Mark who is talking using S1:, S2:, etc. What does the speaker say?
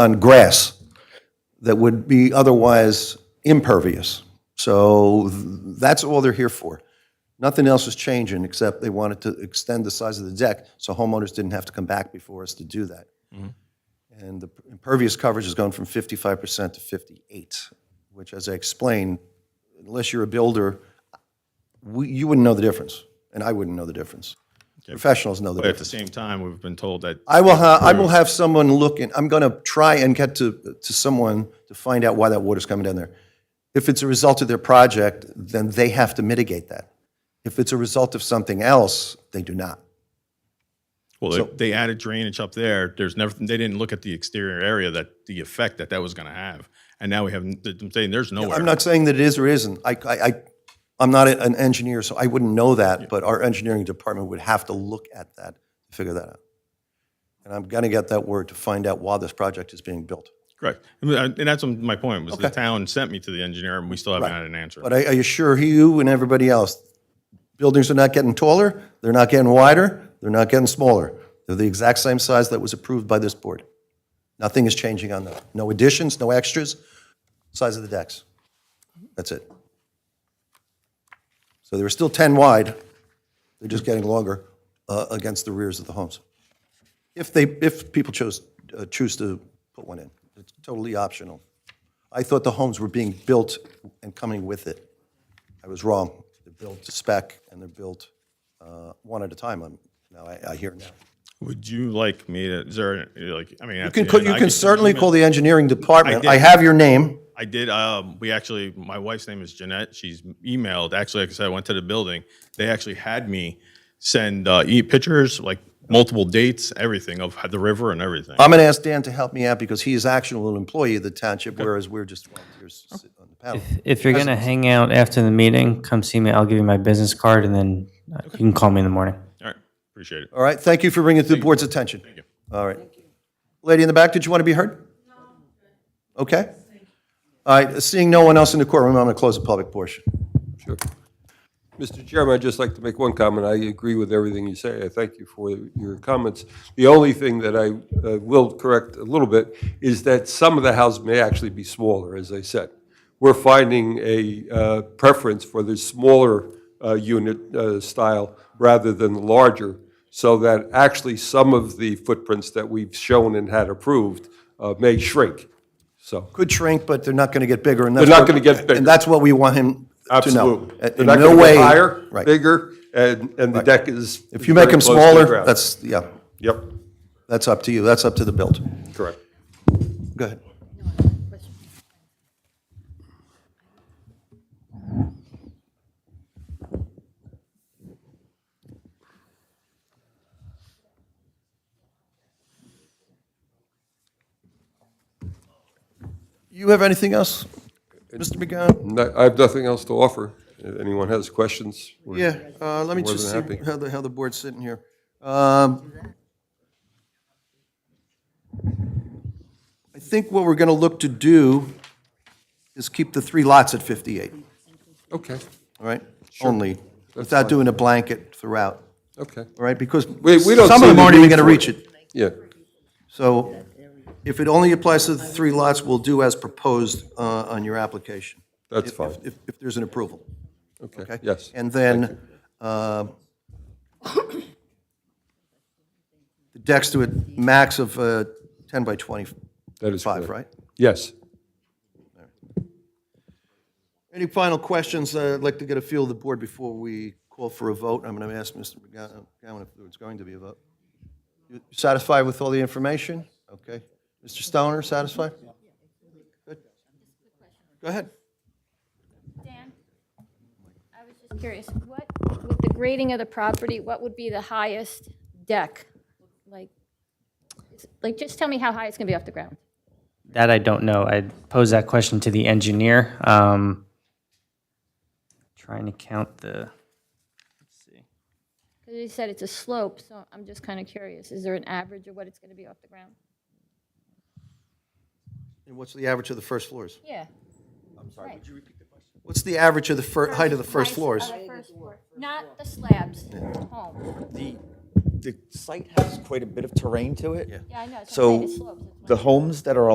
S1: on grass that would be otherwise impervious. So th- that's all they're here for. Nothing else is changing, except they wanted to extend the size of the deck, so homeowners didn't have to come back before us to do that. And the impervious coverage has gone from 55% to 58, which, as I explained, unless you're a builder, we- you wouldn't know the difference, and I wouldn't know the difference. Professionals know the
S2: But at
S1: difference.
S2: the same time, we've been told that
S1: I will have, I will have someone look and, I'm gonna try and get to, to someone to find out why that water's coming down there. If it's a result of their project, then they have to mitigate that. If it's a result of something else, they do not.
S2: well, they- they added drainage up there. There's never they didn't look at the exterior area that the effect that that was going to have, and now we have. I'm saying there's nowhere.
S1: I'm not saying that it is or isn't. I, I, I- I'm not an engineer, so I wouldn't know that, but our engineering department would have to look at that, to figure that out. And I'm gonna get that word to find out why this project is being built.
S2: Correct, I mean, I- and that's my point. Was the town sent me to the engineer, and we still haven't had an answer.
S1: But I I assure you and everybody else, buildings are not getting taller, they're not getting wider, they're not getting smaller. They're the exact same size that was approved by this board. Nothing is changing on them. No additions, no extras, size of the decks. That's it. So they were still 10 wide, they're just getting longer uh, against the rears of the homes. If they, if people chose, uh, choose to put one in, it's totally optional. I thought the homes were being built and coming with it. I was wrong. They're built to spec and they're built uh, one at a time. I'm- Now, I I hear now.
S2: Would you like me to? Is there like? I mean,
S1: You can, call- you can certainly call the engineering department. I
S2: did.
S1: have your name.
S2: I did. Um, we actually, my wife's name is Jeanette. She's emailed. Actually, like I said, I went to the building. They actually had me send uh, e- pictures, like multiple dates, everything of the river and everything.
S1: I'm going to ask Dan to help me out because he is actually an employee of the township, whereas we're just volunteers sitting on the panel.
S3: If you're gonna hang out after the meeting, come see me. I'll give you my business card, and then uh, you can call me in the morning.
S2: All right, appreciate it.
S1: All right, thank you for bringing it to the board's attention. Thank you. All right. Lady in the back, did you want to be heard? No. Okay. All right, seeing no one else in the courtroom, I'm going to close the public portion.
S4: Mr. Chairman, I'd just like to make one comment. I agree with everything you say. I thank you for your comments. The only thing that I uh, will correct a little bit is that some of the houses may actually be smaller, as I said. We're finding a uh, preference for the smaller uh, unit uh, style rather than the larger, so that actually some of the footprints that we've shown and had approved uh, may shrink. So,
S1: could shrink, but they're not going to get bigger. They're
S4: not gonna get bigger.
S1: And that's what we want him to know.
S4: absolutely.
S1: In
S4: They're not
S1: no
S4: gonna get
S1: way-
S4: Higher,
S1: Right.
S4: bigger, and, and the deck is.
S1: If you make
S4: very
S1: them
S4: close to the
S1: smaller,
S4: ground.
S1: that's, yeah,
S4: Yep,
S1: that's up to you. That's up to the build.
S4: correct.
S1: Go ahead. You have anything else, Mr. McGowan?
S4: No- I have nothing else to offer. If anyone has questions. we're-
S1: Yeah, uh, let me
S4: more
S1: just see
S4: than happy.
S1: how the, how the board's sitting here. Um, I think what we're going to look to do is keep the three lots at 58,
S4: Okay,
S1: all right? Only, without doing a blanket throughout,
S4: okay,
S1: all right? Because
S4: we don't
S1: some of
S4: see
S1: them
S4: the
S1: aren't even
S4: need
S1: going to
S4: for
S1: reach it.
S4: yeah.
S1: So if it only applies to the three lots, we'll do as proposed uh, on your application.
S4: That's
S1: if-
S4: fine.
S1: If, if there's an approval.
S4: Okay,
S1: Okay?
S4: yes.
S1: And then uh, the decks to a max of uh, 10 by 25,
S4: That is correct.
S1: right?
S4: Yes.
S1: Any final questions? Uh, I'd like to get a feel of the board before we call for a vote. I'm going to ask Mr. McGowan if there's going to be a vote. You Satisfied with all the information? Okay. Mr. Stoner, satisfied? Good. Go ahead.
S5: Dan, I was just curious, what, with the grading of the property, what would be the highest deck? Like, is- like, just tell me how high it's gonna be off the ground.
S3: That I don't know. I posed that question to the engineer. Um, trying to count the.
S5: Because you said it's a slope, so I'm just kind of curious, is there an average of what it's gonna be off the ground?
S1: And what's the average of the first floors?
S5: Yeah.
S1: What's the average of the fir, height of the first floors?
S5: Uh, Not the slabs, home.
S6: The, the site has quite a bit of terrain to it.
S5: Yeah, I know, it's a
S6: So
S5: slopes.
S6: the homes that are